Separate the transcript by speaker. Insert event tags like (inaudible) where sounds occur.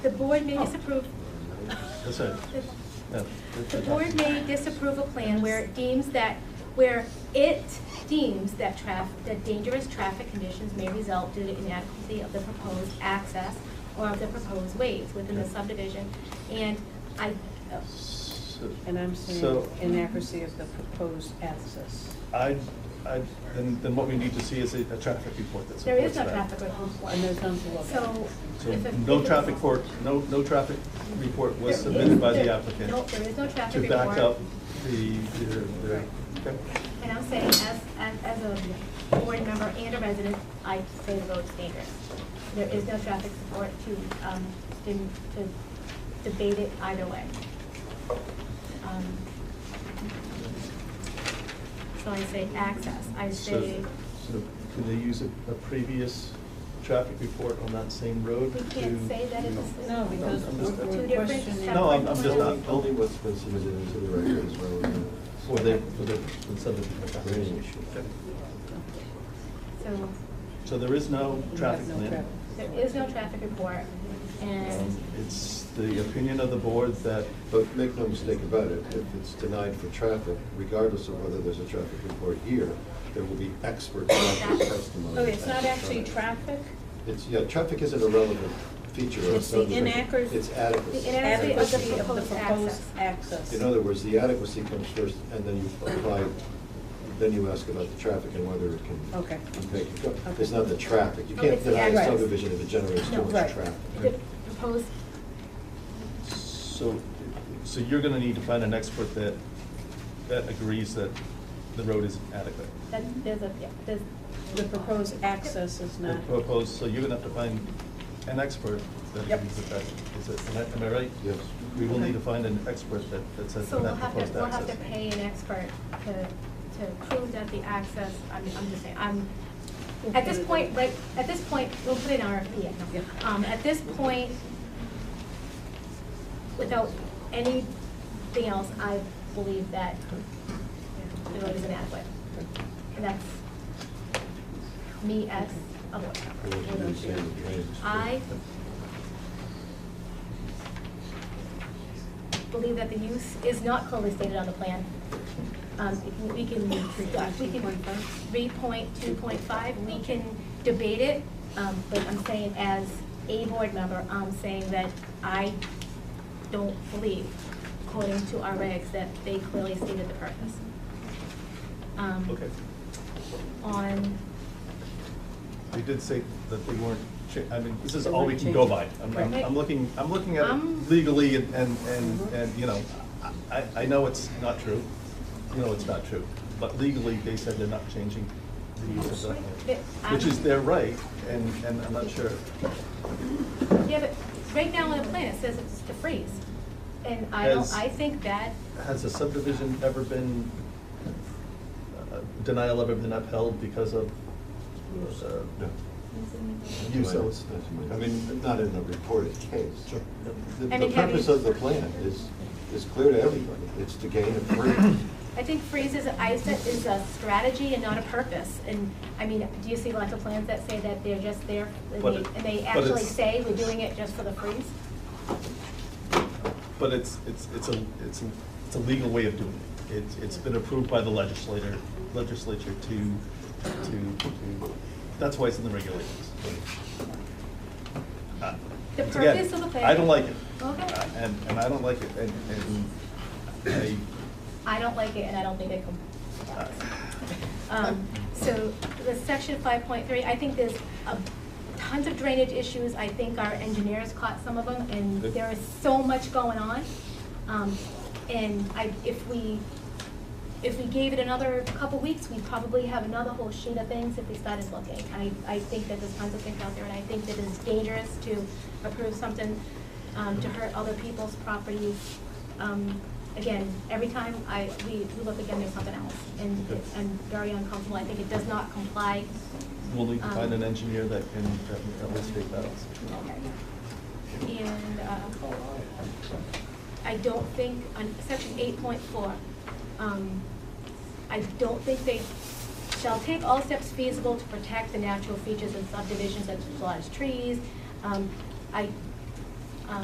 Speaker 1: The board may disapprove,
Speaker 2: Oh.
Speaker 1: (laughs)
Speaker 2: That's it. Yeah.
Speaker 1: the board may disapprove a plan where it deems that, where it deems that traf, that dangerous traffic conditions may result due to inadequacy of the proposed access or of the proposed ways within the subdivision. And I, oh,
Speaker 2: So-
Speaker 3: And I'm saying
Speaker 2: So-
Speaker 3: inaccuracy of the proposed access.
Speaker 2: I, I, then, then what we need to see is a, a traffic report that supports
Speaker 1: there is no
Speaker 2: that.
Speaker 1: traffic report.
Speaker 3: And there's none to look at.
Speaker 1: So.
Speaker 2: So
Speaker 1: if a-
Speaker 2: no
Speaker 1: if a-
Speaker 2: traffic report, no, no traffic report was
Speaker 1: There
Speaker 2: submitted by
Speaker 1: is-
Speaker 2: the
Speaker 1: there-
Speaker 2: applicant.
Speaker 1: No, there is no traffic
Speaker 2: To
Speaker 1: report.
Speaker 2: back up the, their, their, okay.
Speaker 1: And I'm saying, as, as, as a board member and a resident, I say the road's dangerous. There is no traffic support to, um, to, to debate it either way. Um, So I say access, I
Speaker 2: So,
Speaker 1: say,
Speaker 2: so can they use a, a previous traffic report on that same road?
Speaker 1: we
Speaker 2: to-
Speaker 1: can't say that it's a.
Speaker 3: No, because
Speaker 2: I'm
Speaker 3: we're
Speaker 2: just-
Speaker 3: we're
Speaker 1: Two different
Speaker 3: questioning.
Speaker 1: separate
Speaker 2: No, I'm- I'm just
Speaker 1: plans.
Speaker 2: not-
Speaker 4: Only what's been submitted into the record is relevant.
Speaker 2: For the, for the, for the subdivision.
Speaker 4: Drainage.
Speaker 2: Okay.
Speaker 1: So,
Speaker 2: So there is no
Speaker 3: We have
Speaker 2: traffic
Speaker 3: no
Speaker 2: plan?
Speaker 3: traffic.
Speaker 1: there is no traffic report, and
Speaker 2: Um, It's the opinion of the board that,
Speaker 4: But make no mistake about it, if it's denied for traffic, regardless of whether there's a traffic report here, there will be expert traffic testimony.
Speaker 3: Okay, it's not actually
Speaker 4: traffic.
Speaker 3: traffic?
Speaker 4: It's, yeah, traffic isn't a relevant feature of
Speaker 3: It's the
Speaker 4: subdivision.
Speaker 3: inaccuracy-
Speaker 4: It's adequacy.
Speaker 1: The inadequacy of the
Speaker 3: Adequacy of the
Speaker 1: proposed
Speaker 3: proposed
Speaker 1: access.
Speaker 3: access.
Speaker 4: In other words, the adequacy comes first, and then you apply, then you ask about the traffic and whether it can
Speaker 3: Okay.
Speaker 4: make it go.
Speaker 3: Okay.
Speaker 4: It's not the traffic. You
Speaker 1: Oh,
Speaker 4: can't
Speaker 1: it's the
Speaker 4: deny a
Speaker 3: adequacy.
Speaker 4: subdivision if it generates
Speaker 1: No,
Speaker 4: too much
Speaker 3: right.
Speaker 4: traffic.
Speaker 1: the proposed,
Speaker 2: so, so you're gonna need to find an expert that, that agrees that the road is adequate.
Speaker 1: that, there's a, yeah, there's,
Speaker 3: The proposed access is
Speaker 2: The
Speaker 3: not.
Speaker 2: proposed, so you're gonna have to find an expert that
Speaker 3: Yep.
Speaker 2: agrees with that. Is it, am I- am I right?
Speaker 4: Yes.
Speaker 2: We will need to find an expert that, that says
Speaker 1: So
Speaker 2: that
Speaker 1: we'll have to,
Speaker 2: proposed
Speaker 1: we'll have to
Speaker 2: access.
Speaker 1: pay an expert to, to prove that the access, I'm, I'm just saying, I'm,
Speaker 3: We'll
Speaker 1: at
Speaker 3: put
Speaker 1: this
Speaker 3: it
Speaker 1: point,
Speaker 3: in.
Speaker 1: right, at this point, we'll put in RFP, yeah,
Speaker 3: Yeah.
Speaker 1: no. Um, at this point, without anything else, I believe that the road is inadequate. And that's me as a board
Speaker 4: Or
Speaker 1: member.
Speaker 4: what do you say in the drainage?
Speaker 1: I believe that the use is not clearly stated on the plan. Um, if we can, we can, three point two point five, we can debate it, um, but I'm saying as a board member, I'm saying that I don't believe, according to our regs, that they clearly stated the purpose. Um,
Speaker 2: Okay.
Speaker 1: On,
Speaker 2: They did say that they weren't, cha- I mean, this is
Speaker 3: They
Speaker 2: all we
Speaker 3: weren't
Speaker 2: can go by.
Speaker 3: changing.
Speaker 2: I'm, I'm-
Speaker 1: Right.
Speaker 2: I'm looking, I'm looking at
Speaker 1: I'm-
Speaker 2: it legally and, and, and,
Speaker 3: Mhm.
Speaker 2: and, you know, I, I know it's not true. You know it's not true, but legally, they said they're not changing the use of the,
Speaker 1: But I'm-
Speaker 2: which is their right, and, and I'm not sure.
Speaker 1: yeah, but right now on the plan, it says it's the freeze. And I don't,
Speaker 2: Has-
Speaker 1: I think that
Speaker 2: Has a subdivision ever been, uh, denial ever been upheld because of, uh,
Speaker 4: No.
Speaker 2: use of?
Speaker 4: Not to my- I mean, not in the reported case.
Speaker 2: Sure.
Speaker 4: The
Speaker 1: I
Speaker 4: the
Speaker 1: mean, have you-
Speaker 4: purpose of the plan is, is clear to everybody. It's to gain a free.
Speaker 1: I think freeze is, I said, is a strategy and not a purpose. And, I mean, do you see lots of plans that say that they're just there, and
Speaker 2: But
Speaker 1: they-
Speaker 2: it-
Speaker 1: and they
Speaker 2: but
Speaker 1: actually
Speaker 2: it's-
Speaker 1: say we're doing it just for the freeze?
Speaker 2: But it's, it's, it's a, it's, a- it's a legal way of doing it. It's, it's been approved by the legislator, legislature to, to, to, that's why it's in the regulations. Uh,
Speaker 1: The
Speaker 2: it's again,
Speaker 1: purpose of the plan-
Speaker 2: I don't like it.
Speaker 1: Okay.
Speaker 2: Uh, And, and I don't like it, and, and
Speaker 1: I don't like it, and I don't think it
Speaker 2: I,
Speaker 1: complies.
Speaker 2: uh,
Speaker 1: Um, So the section five point three, I think there's a- tons of drainage issues. I think our engineers caught some of them, and there is so much going on. Um, And I, if we, if we gave it another couple weeks, we'd probably have another whole sheet of things if we started looking. I, I think that there's tons of things out there, and I think that it's dangerous to approve something um, to hurt other people's property. Um, Again, every time I, we, we look again, there's something else, and it's- I'm very uncomfortable. I think it does not comply.
Speaker 2: We'll need to find an
Speaker 1: Um,
Speaker 2: engineer that can, that- that will state that.
Speaker 1: And uh, I don't think, on section eight point four, um, I don't think they shall take all steps feasible to protect the natural features and subdivisions such as large trees. Um, I